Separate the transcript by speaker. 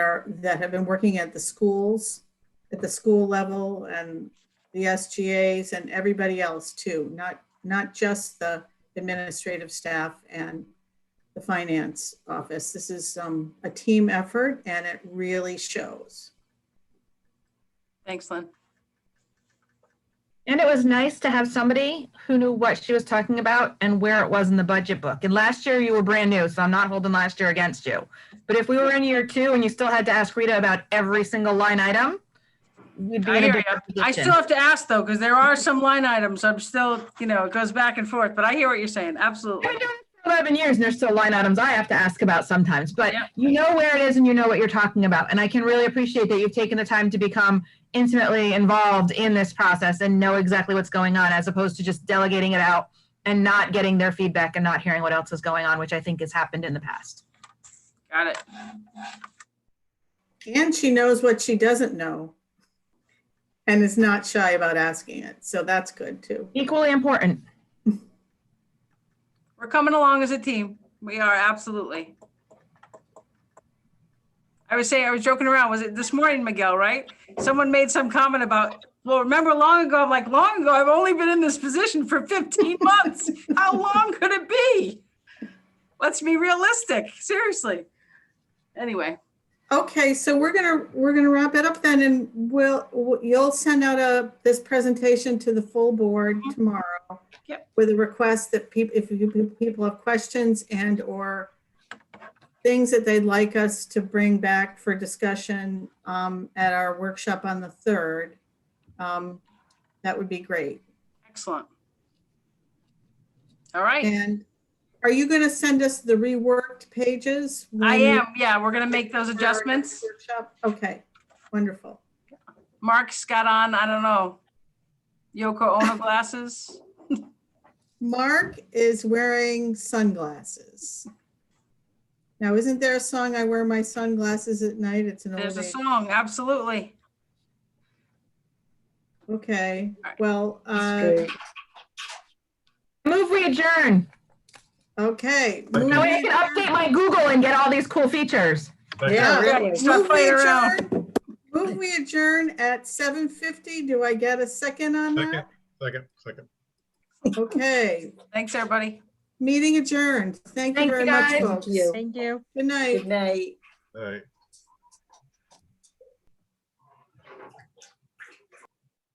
Speaker 1: are- that have been working at the schools, at the school level and the SGAs and everybody else too, not, not just the administrative staff and the finance office. This is um, a team effort and it really shows.
Speaker 2: Thanks, Lynn.
Speaker 3: And it was nice to have somebody who knew what she was talking about and where it was in the budget book. And last year you were brand new, so I'm not holding last year against you. But if we were in year two and you still had to ask Rita about every single line item, we'd be
Speaker 2: I
Speaker 3: in a
Speaker 2: hear
Speaker 3: different
Speaker 2: I
Speaker 3: position.
Speaker 2: still have to ask though, because there are some line items. I'm still, you know, it goes back and forth, but I hear what you're saying. Absolutely.
Speaker 3: I've been doing this for 11 years and there's still line items I have to ask about sometimes, but
Speaker 2: Yeah.
Speaker 3: you know where it is and you know what you're talking about. And I can really appreciate that you've taken the time to become intimately involved in this process and know exactly what's going on as opposed to just delegating it out and not getting their feedback and not hearing what else is going on, which I think has happened in the past.
Speaker 2: Got it.
Speaker 1: And she knows what she doesn't know and is not shy about asking it. So that's good too.
Speaker 3: Equally important.
Speaker 2: We're coming along as a team. We are absolutely. I was saying, I was joking around. Was it this morning, Miguel, right? Someone made some comment about, well, remember long ago, I'm like, long ago, I've only been in this position for 15 months. How long could it be? Let's be realistic, seriously. Anyway,
Speaker 1: Okay, so we're gonna, we're gonna wrap it up then and we'll, you'll send out a, this presentation to the full board tomorrow.
Speaker 2: Mm-hmm. Yep.
Speaker 1: With a request that people, if you, people have questions and or things that they'd like us to bring back for discussion um, at our workshop on the third. um, That would be great.
Speaker 2: excellent. All right,
Speaker 1: And are you gonna send us the reworked pages? when
Speaker 2: I
Speaker 1: you-
Speaker 2: am, yeah, we're gonna make those adjustments.
Speaker 1: Workshop? Okay, wonderful.
Speaker 2: Mark's got on, I don't know, Yoko Ono glasses.
Speaker 1: Mark is wearing sunglasses. Now, isn't there a song, I wear my sunglasses at night? It's an
Speaker 2: There's
Speaker 1: old,
Speaker 2: a
Speaker 1: age-
Speaker 2: song, absolutely.
Speaker 1: okay,
Speaker 2: All right.
Speaker 1: well, uh,
Speaker 3: Move, we adjourn.
Speaker 1: okay.
Speaker 3: Now
Speaker 1: move
Speaker 3: I can
Speaker 1: adjourned.
Speaker 3: update my Google and get all these cool features.
Speaker 1: Yeah,
Speaker 2: Yeah,
Speaker 1: right.
Speaker 2: stop
Speaker 1: Move we
Speaker 2: playing around.
Speaker 1: adjourn- Move we adjourn at seven fifty. Do I get a second on
Speaker 4: Second,
Speaker 1: that?
Speaker 4: second, second.
Speaker 1: Okay,
Speaker 2: Thanks, everybody.
Speaker 1: meeting adjourned. Thank you
Speaker 3: Thank you,
Speaker 1: very much,
Speaker 3: guys.
Speaker 1: folks.
Speaker 5: you.
Speaker 1: Good night.
Speaker 5: Good night.
Speaker 4: All right.